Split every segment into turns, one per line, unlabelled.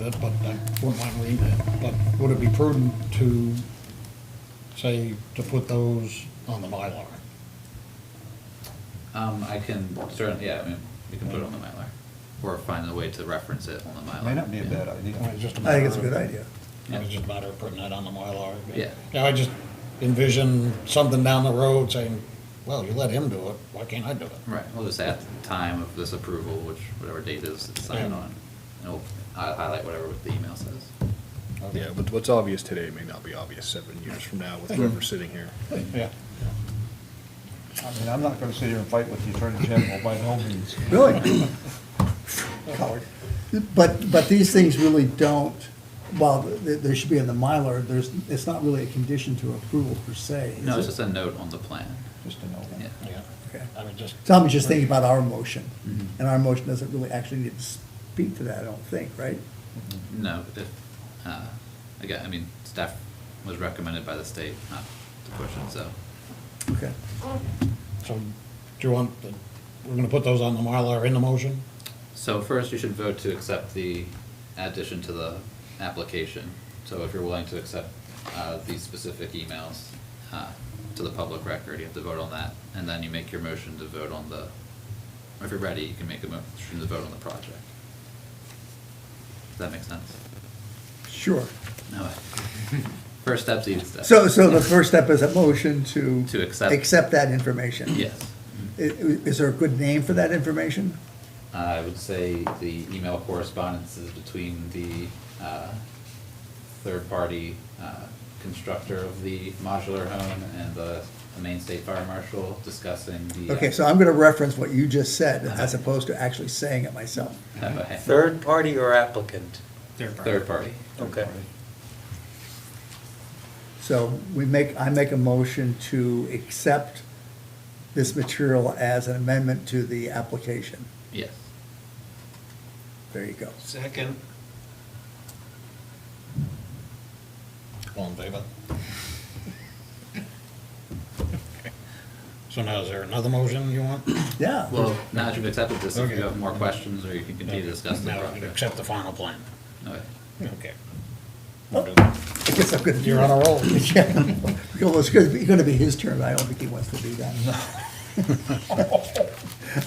that, but I wouldn't mind reading it. But would it be prudent to say, to put those on the Mylar?
Um, I can certainly, yeah, I mean, we can put it on the Mylar, or find a way to reference it on the Mylar.
May not be a bad
I mean,
idea.
it's just a
I think it's a
matter
good
of-
idea.
It's just a matter of putting that on the Mylar.
Yeah.
Yeah, I just envision something down the road saying, well, you let him do it, why can't I do it?
Right, we'll just add the time of this approval, which, whatever date is it's signed
Yeah.
on, and we'll hi- highlight whatever the email says.
Okay.
Yeah, Mm-hmm. but what's obvious today may not be obvious seven years from now with whoever's sitting here.
Yeah.
I mean, I'm not gonna sit here and fight with the Attorney General by no means.
Really? Coward. But, but these things really don't, while they, they should be in the Mylar, there's, it's not really a condition to approval per se. is
No, it's
it?
just a note on the plan,
Just to know.
yeah.
Yeah.
Okay.
I mean, just,
So I'm just thinking about our motion,
Mhm.
and our motion doesn't really actually need to speak to that, I don't think, right?
No, if, uh, again, I mean, staff was recommended by the state not to push it, so,
Okay.
so, do you want, the- we're gonna put those on the Mylar in the motion?
So first, you should vote to accept the addition to the application. So if you're willing to accept uh, these specific emails uh, to the public record, you have to vote on that. And then you make your motion to vote on the, or if you're ready, you can make a motion to vote on the project. Does that make sense?
Sure.
No. First step's easy step.
So, so the first step is a motion to.
To accept.
Accept that information.
Yes.
I- i- Is there a good name for that information?
Uh, I would say the email correspondences between the uh, third-party uh, constructor of the modular home and the the Maine State Fire Marshal discussing the. uh,
Okay, so I'm gonna reference what you just said, as
Uh-huh.
opposed to actually saying it myself.
okay.
Third party or applicant?
Third party.
Okay.
So we make, I make a motion to accept this material as an amendment to the application.
Yes.
There you go.
Second.
All in favor? So now is there another motion you want?
Yeah.
Well, now that you've accepted this, if
Okay.
you have more questions or you can continue to discuss the
Now we can
project.
accept the final plan.
Okay.
Okay.
I guess I'm gonna.
You're on a roll.
Yeah. Well, it's gonna be, gonna be his turn, I don't think he wants to do that.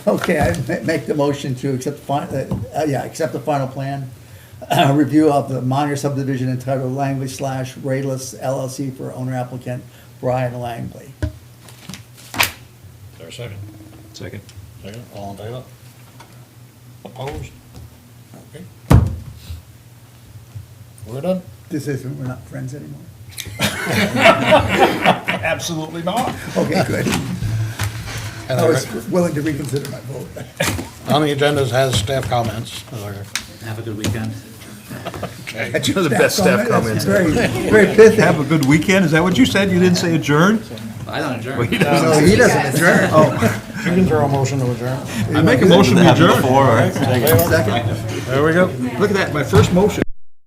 Okay, I ma- make the motion to accept the fin, uh, uh, yeah, accept the final plan. Uh, review of the minor subdivision entitled Langley slash Rayless LLC for owner applicant Brian Langley.
Is there a second?
Second.
Second, all in favor? Opposed? Okay. We're done?
This isn't, we're not friends anymore.
Absolutely not.
Okay, good.
And
I
the
was
re-
willing to reconsider my vote.
On the agenda has staff comments. Are there-
Have a good weekend.
Okay.
Those are the best staff
That's
comments.
Very, very pithy.
Have a good weekend, is that what you said? You didn't say adjourn?
I don't adjourn.
No, he doesn't adjourn.
You can throw a motion to adjourn.
I make a motion to adjourn.
All in favor?
Second.
There we go. Look at that, my first motion.